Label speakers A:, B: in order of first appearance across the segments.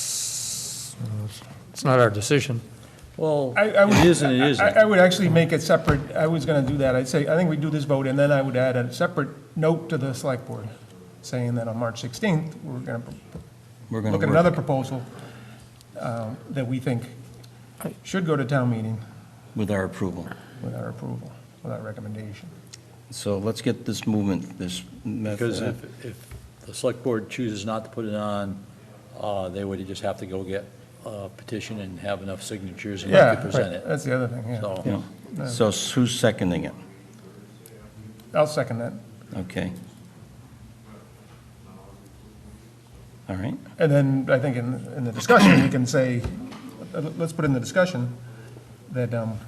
A: That's, it's not our decision.
B: Well,
C: I- I would-
B: it is and it
C: I-
B: isn't.
C: I I would actually make it separate, I was going to do that, I'd say, I think we do this vote, and then I would add a separate note to the select board, saying that on March 16th, we're going to
B: We're going
C: look
B: to
C: at
B: work.
C: another proposal um, that we think should go to town meeting
B: with our approval.
C: with our approval, with our recommendation.
B: So let's get this movement, this
D: Because
B: method.
D: if, if the select board chooses not to put it on, uh, they would just have to go get a petition and have enough signatures and
C: Yeah,
D: they could
C: right,
D: present it.
C: that's the other thing, yeah.
D: So,
B: you know. So who's seconding it?
C: I'll second that.
B: Okay. All right,
C: And then I think in, in the discussion, we can say, uh, let's put in the discussion that um,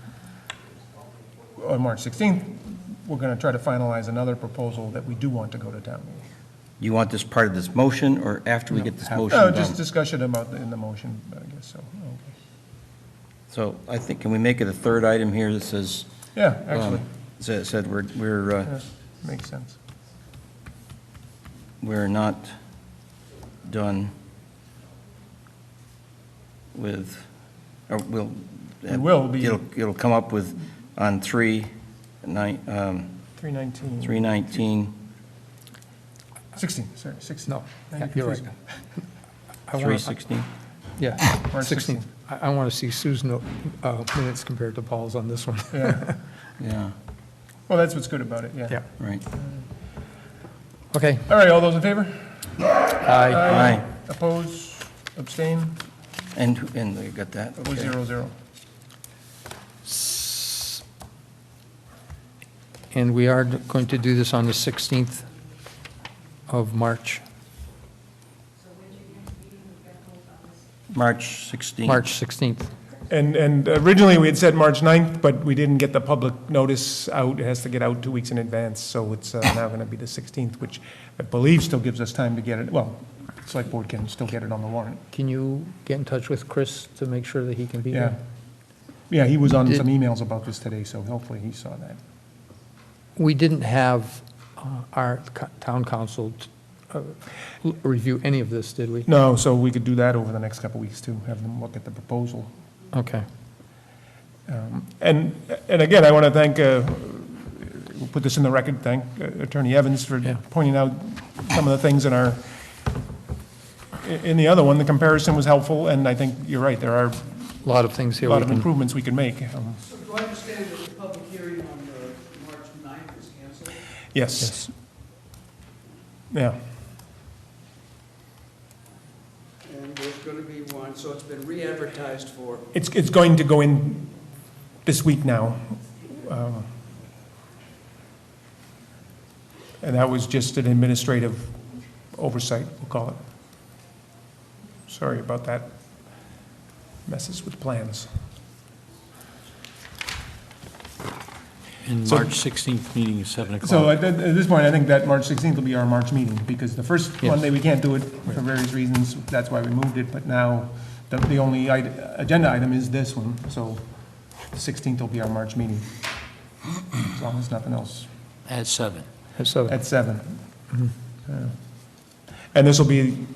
C: on March 16th, we're going to try to finalize another proposal that we do want to go to town meeting.
B: you want this part of this motion, or after we get this motion
C: No, Oh, just
B: done?
C: discussion about, the- in the motion, I guess, so, okay.
B: So I think, can we make it a third item here that says,
C: Yeah,
B: um,
C: actually,
B: sa- said we're, we're, uh,
C: yeah, makes sense.
B: we're not done with, or we'll.
C: We will be-
B: It'll, it'll come up with, on three, nine, um,
C: 319,
B: three nineteen,
C: 16, sorry, 16.
A: No,
C: Now you're
A: you're right.
C: confusing
A: I wanna-
B: three sixteen.
A: Yeah,
C: March
A: 16th.
C: 16th.
A: I, I want to see Sue's no- uh, minutes compared to Paul's on this one.
C: me. Yeah.
B: Yeah,
C: Well, that's what's good about it, yeah.
A: Yeah,
B: right.
A: okay.
C: All right, all those in favor?
A: Aye.
B: Aye.
C: Oppose, abstain,
B: And, and they got that,
C: it was
B: okay.
C: zero, zero.
A: And we are going to do this on the 16th of March,
B: March sixteen.
A: March 16th.
C: And, and originally, we had said March 9th, but we didn't get the public notice out. It has to get out two weeks in advance, so it's uh, now going to be the 16th, which I believe still gives us time to get it, well, select board can still get it on the warrant.
A: Can you get in touch with Chris to make sure that he can be
C: Yeah.
A: here?
C: Yeah, he was on
A: Did-
C: some emails about this today, so hopefully he saw that.
A: We didn't have uh, our co- town council uh, l- review any of this, did we?
C: No, so we could do that over the next couple of weeks, too, have them look at the proposal.
A: Okay.
C: And, and again, I want to thank, uh, we'll put this in the record, thank uh, Attorney Evans for
A: Yeah.
C: pointing out some of the things in our, in the other one, the comparison was helpful, and I think you're right, there are
A: A lot of things
C: a
A: here. we
C: lot of
A: can-
C: improvements we can make. Um,
E: So do I understand that the public hearing on uh, March 9th is canceled?
C: Yes. Yeah,
E: And there's going to be one, so it's been re-advertised for,
C: it's, it's going to go in this week now. Um, And that was just an administrative oversight, we'll call it. Sorry about that. Messes with plans.
D: and
C: So-
D: March 16th meeting is 7 o'clock.
C: So at, at at this point, I think that March 16th will be our March meeting, because the first
A: Yes.
C: Monday, we can't do it for various reasons, that's why we moved it, but now, the, the only ide- agenda item is this one, so 16th will be our March meeting, as long as nothing else,
D: At 7.
A: So-
C: at seven.
A: Mm-hmm.
C: Yeah. And this will be,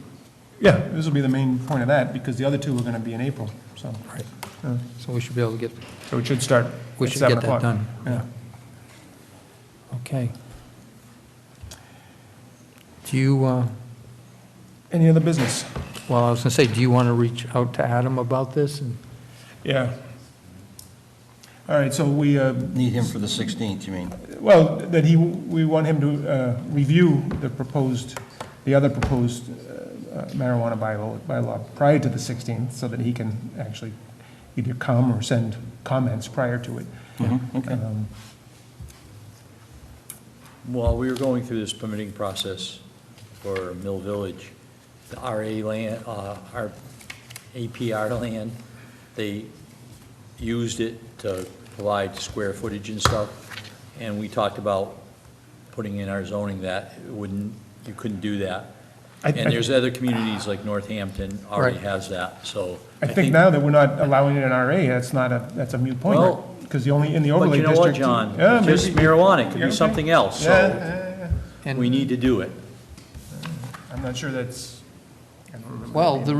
C: yeah, this will be the main point of that, because the other two are gonna be in April, so,
A: So we should be able to get,
C: so it should start
A: we
C: at
A: should
C: seven
A: get that
C: o'clock.
A: done.
C: Yeah.
A: Okay. Do you, uh,
C: Any other business?
A: well, I was going to say, do you want to reach out to Adam about this? And
C: Yeah. All right, so we, uh,
B: Need him for the sixteenth, you mean?
C: Well, that he, we want him to uh, review the proposed, the other proposed uh, marijuana bylaw, bylaw prior to the 16th, so that he can actually either come or send comments prior to it.
D: Mm-hmm.
B: Okay.
C: Um,
D: While we were going through this permitting process for Mill Village, the RA land, uh, our APR land, they used it to provide square footage and stuff, and we talked about putting in our zoning that it wouldn't, you couldn't do that.
C: I- I-
D: And there's other communities like Northampton already
A: Right.
D: has that, so.
C: I think now that we're not allowing it in RA, that's not a, that's a mute point,
D: Well-
C: because the only, in the
D: But
C: overlay
D: you know
C: district.
D: what, John?
C: Yeah,
D: It's Just
C: maybe-
D: marijuana, it could
C: Yeah,
D: be
C: okay.
D: something else,
C: Yeah,
D: so
C: yeah, yeah.
A: and-
D: we need to do it.
C: I'm not sure that's. I don't remember
A: Well,
C: name.
A: the